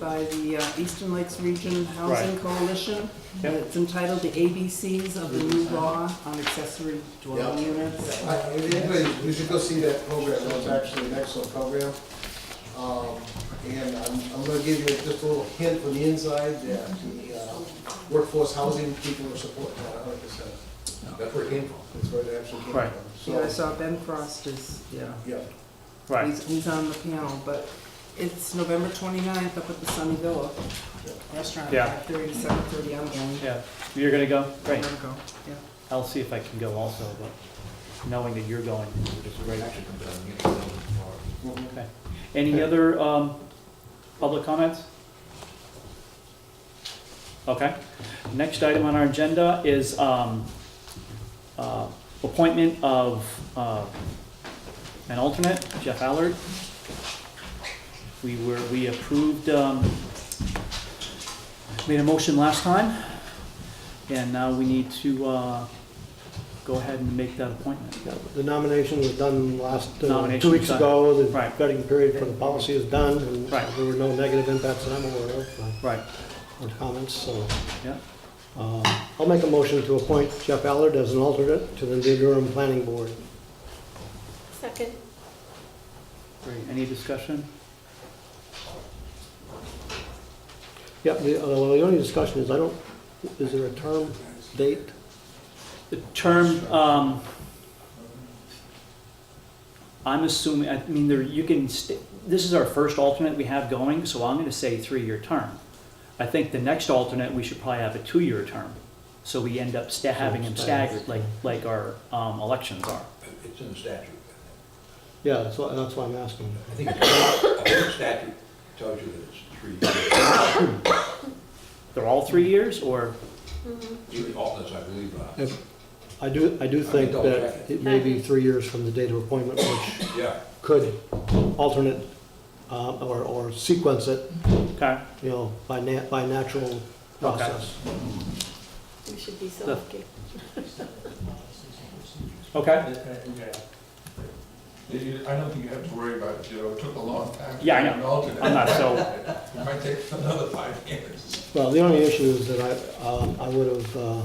by the uh, Eastern Lakes Region Housing Right. Coalition. Uh, Yep. It's entitled The ABCs of the New Law on Accessory Dwelling Units. I- if Anybody, you should go see that program, that was actually an excellent program. Um, And I'm, I'm gonna give you just a little hint from the inside that the uh, workforce housing people are supporting that a hundred percent. That's where it came from. That's where it actually came Right. from. Yeah, I So, saw Ben Frost is, yeah, yeah, Right, he's, he's on the panel, but it's November 29th up at the Sunny Villa Restaurant, Yeah. 5:30 to 7:30, I'm going. yeah. You're gonna go? I'm Great. gonna go, yeah. I'll see if I can go also, but knowing that you're going is great. Actually, comes out of Munich, that was tomorrow. Okay. Any other, um, public comments? Okay. Next item on our agenda is, um, uh, appointment of, uh, an alternate, Jeff Allard. We were, we approved, um, made a motion last time, and now we need to, uh, go ahead and make that appointment. Yeah, The nomination was done last, uh, Nomination two was weeks done. ago. The Right. vetting period for the policy is done, and Right. there were no negative impacts that I'm aware of, uh, Right, or comments, so. Yeah. Um, I'll make a motion to appoint Jeff Allard as an alternate to the New Durham Planning Board. Second. great. Any discussion? Yeah, the, uh, the only discussion is, I don't, is there a term, date? The term, um, I'm assuming, I mean, there, you can, st- this is our first alternate we have going, so I'm gonna say three-year term. I think the next alternate, we should probably have a two-year term, so we end up sta- having them staggered, like, like our, um, elections are. It's in the statute. Yeah, that's why, that's why I'm asking. I think it's, I think the statute tells you that it's three years. They're all three years, or, Even alternates, I believe, uh, If- I do, I do think double that check it may be three years from the date of appointment, which yeah. could alternate, uh, or, or sequence it okay, you know, by na, by natural process. We should be so The- lucky. okay, You- I don't think you have to worry about it, you know, it took a long time. to Yeah, I get know. an alternate. I'm not so, It might take another five years. Well, the only issue is that I, um, I would have, uh,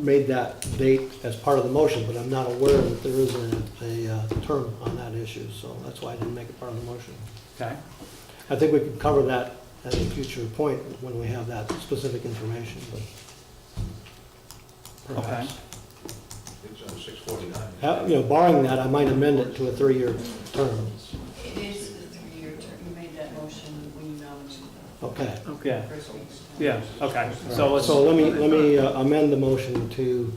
made that date as part of the motion, but I'm not aware that there is a, a uh, term on that issue, so that's why I didn't make it part of the motion. okay, I think we could cover that at a future point when we have that specific information, but perhaps. It's on six forty-nine. Ha- You know, barring that, I might amend it to a three-year term. It is the three-year term, you made that motion when you nominated Okay. yeah, the first week's term. yeah, okay, so let's, So let me, let me uh, amend the motion to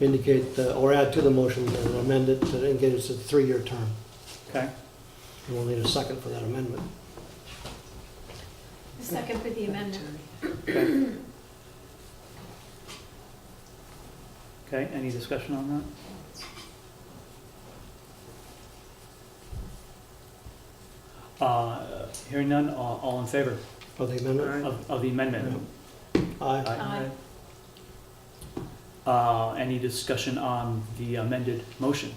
indicate, the- or add to the motion and amend it to indicate it's a three-year term. okay, And we'll need a second for that amendment. Second for the amendment. okay, any discussion on that? Uh, hearing none, all, all in favor? For the amendment? Of, of the amendment. Aye. Aye. Uh, any discussion on the amended motion?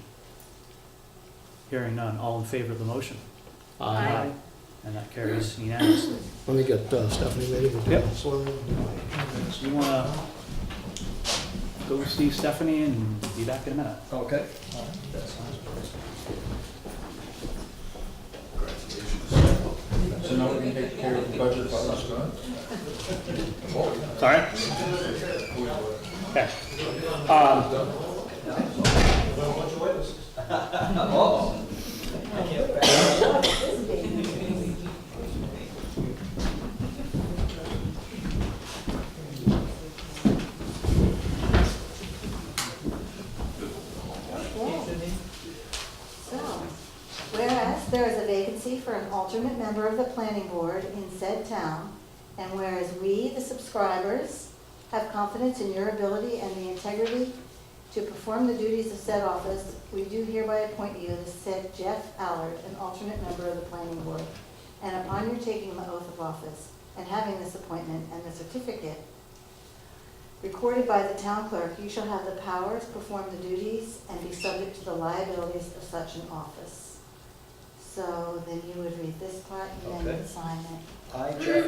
Hearing none, all in favor of the motion? Aye. And that carries unanimously. Let me get uh, Stephanie ready to do Yep. this one. You wanna go see Stephanie and be back in a minute? okay. So now we can take care of the budget while it's gone? Sorry? Okay. Um, So, whereas there is a vacancy for an alternate member of the planning board in said town, and whereas we, the subscribers, have confidence in your ability and the integrity to perform the duties of said office, we do hereby appoint you, the said Jeff Allard, an alternate member of the planning board. And upon your taking the oath of office and having this appointment and the certificate recorded by the town clerk, you shall have the power to perform the duties and be subject to the liabilities of such an office. So then you would read this part and then Okay. sign it. I, Jeff